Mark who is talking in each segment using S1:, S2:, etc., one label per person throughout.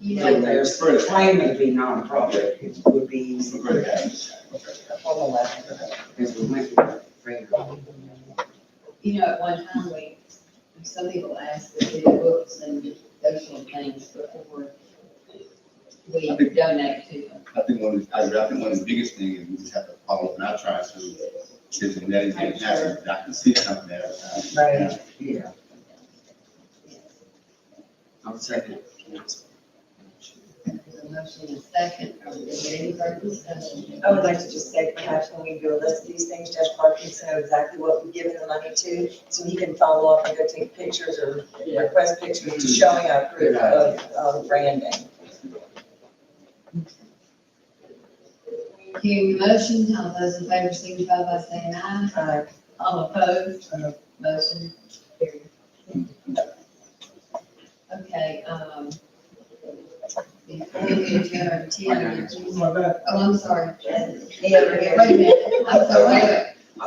S1: you
S2: Like
S1: know,
S2: there's for a claim to be nonprofit, it would be easy.
S3: I'm great at it.
S2: Form eleven, because we went through that freedom.
S1: you know, at one time, we, some people asked to do books and those sort of things before we donate to them.
S3: I think one of, the- I I think one of the biggest things is we just have to follow what I try to, is the net, and that's, I can see something there.
S2: Right. Yeah, I'll second.
S1: There's a motion and a second, are we gonna get any further discussion?
S4: I would like to just say, perhaps when we do a list of these things, Judge Parkinson know exactly what we've given the money to, so he can follow up and go take pictures or request pictures to showing our proof of, of branding.
S1: Hearing the motion, all those in favor signify by saying aye.
S4: Uh,
S1: All opposed, motion carried. Okay, um, before we adjourn, Tim, did you- oh, I'm sorry.
S4: Me over here.
S1: Wait a minute, I'm sorry, wait, wait.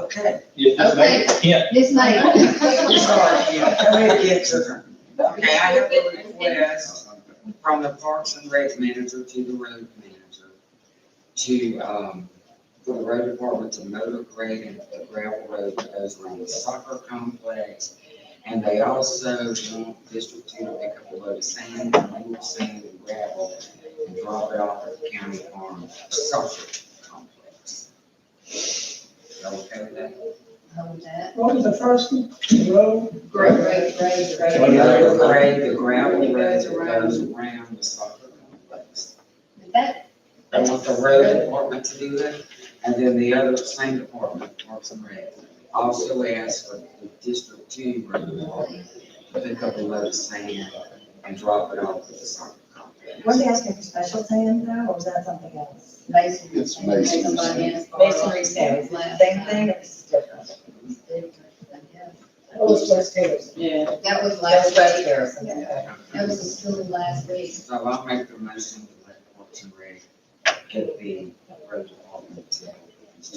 S4: Okay.
S5: Yes, that's
S1: Okay,
S5: right. Yeah.
S1: Ms.
S2: I'm
S1: May.
S2: sorry, yeah, go ahead, get to them. Okay, I have a request from the Parks and Rec manager to the road manager to, um, for the road department to mow the grade and the gravel road that goes around the soccer complex. And they also want District Two to pick up a load of sand, loose sand and gravel and drop it off at the county farm soccer complex. Y'all okay with that?
S1: Hold that.
S6: What was the first one? The road?
S1: Great, great, great,
S2: The
S1: great.
S2: road grade, the gravel road that goes around the soccer complex.
S1: That,
S2: I want the road department to do that, and then the other same department, Parks and Rec, also asked for the District Two road department to pick up a load of sand and drop it off at the soccer
S4: Were
S2: complex.
S4: they asking for special sand though, or was that something else?
S1: masonry.
S3: It's masonry.
S1: Somebody asked for it.
S4: Masonry sand,
S1: Last
S4: same
S1: time.
S4: thing, or this is different?
S1: It's different, I guess.
S6: That was West Harrison.
S7: Yeah,
S1: That was
S4: That's
S1: last
S4: West
S1: week.
S4: Harrison, okay.
S1: That was the school last week.
S2: So I'll make the motion to let Parks and Rec get the road department to.
S7: and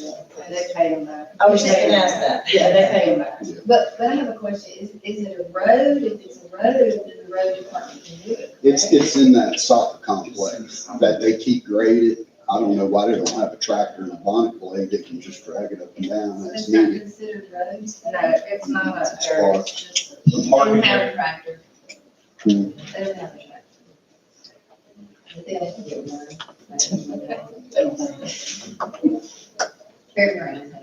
S7: they pay them back.
S4: I was just gonna ask that.
S7: Yeah, they pay them back.
S1: But, but I have a question, is, is it a road? If it's a road, then the road department can do it.
S8: It's,
S1: correct?
S8: it's in that soccer complex that they keep graded. I don't know why they don't have a tractor and a bonnet blade that can just drag it up and down
S1: So
S8: as
S1: It's not
S8: needed.
S1: considered roads?
S7: No, it's not a
S8: It's
S7: dirt,
S8: park.
S7: it's just,
S1: They don't have a tractor.
S8: Hmm.
S1: They don't have a tractor. I think I can get one. Fair ground.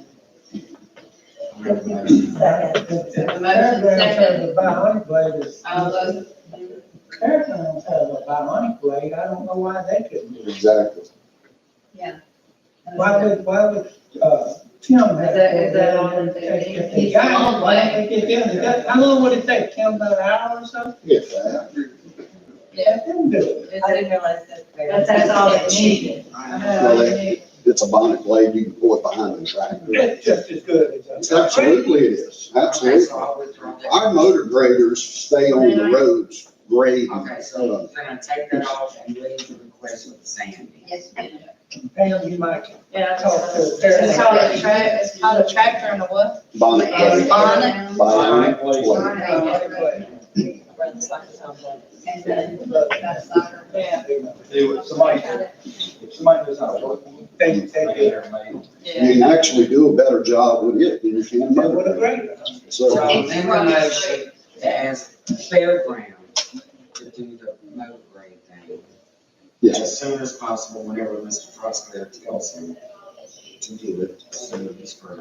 S2: I'll make the motion.
S7: the motion
S6: Fairgrounds has
S7: second,
S6: a bionic blade. It's-
S7: all those,
S6: Fairgrounds has a bionic blade. I don't know why they couldn't do it.
S8: Exactly.
S1: Yeah.
S6: Why would, why would, uh, Tim have?
S7: Uh-huh. Is that- is that all that they
S6: If-
S7: need?
S6: if
S1: It's
S6: they
S1: a
S6: got it,
S1: long
S6: why
S1: way.
S6: don't they get them to do it? How long would it take? Tim, about an hour or so?
S8: If that.
S6: Let them do it.
S4: I didn't realize that.
S7: that's, that's all they needed.
S8: Well, they- It's a bonnet blade, you can pull it behind the tractor.
S6: It's just as good as. uh,
S8: It's Absolutely it is,
S2: Okay, so
S8: absolutely.
S2: I'll withdraw that.
S8: Our motor graders stay on the roads grading.
S2: Okay, so we're gonna take that off and leave the request with the sand.
S1: Yes, ma'am.
S6: Pam, you might
S7: Yeah, it's
S6: talk to.
S7: all- it's
S6: Fairgrounds.
S7: called a track, it's called a tractor and a what?
S8: Bonnet
S7: It's
S8: blade.
S7: bonnet.
S8: Bonnet blade.
S6: Bionic
S1: Sorry.
S6: blade.
S4: Run the soccer complex.
S1: And then, that's soccer.
S7: Yeah,
S5: If somebody, if somebody knows how to work.
S6: They, they do.
S5: they're amazing.
S7: yeah.
S8: You can actually do a better job with it than you can a
S6: They would
S8: motor
S6: have
S8: grader.
S6: graded them.
S8: So.
S2: So amend the motion to ask Fairground to do the mow grade thing. As soon as possible, whenever Mr. Trusclair tells him to do it, so it's for,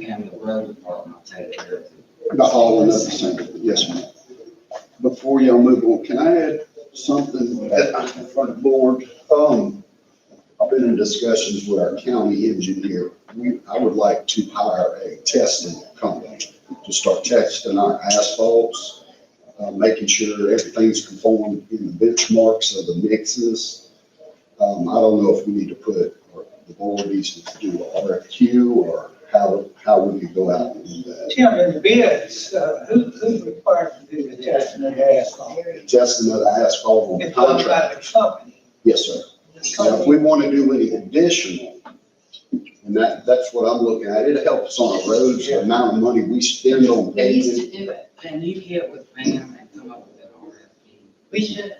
S2: and the road department will take care of it.
S8: Not all or nothing, Senator. yes, ma'am. Before y'all move on, can I add something that I have for the board? Um, I've been in discussions with our county engineer. We, I would like to hire a testing company to start testing our asphalts, uh, making sure everything's conformed in the benchmarks of the mixes. Um, I don't know if we need to put, or the board needs to do a RFQ or how, how would you go out and do that?
S6: Tim, in the bids, uh, who, who's required to do the testing of the asphalt?
S8: testing of the asphalt on
S6: It's done
S8: contract.
S6: by the company.
S8: Yes, sir. Now, if we want to do any additional, and that, that's what I'm looking at, it helps on our roads, the amount of money we spend on
S7: They used
S8: paving.
S7: to do it,
S2: Can you get with Pam and come up with an RFP?
S7: we should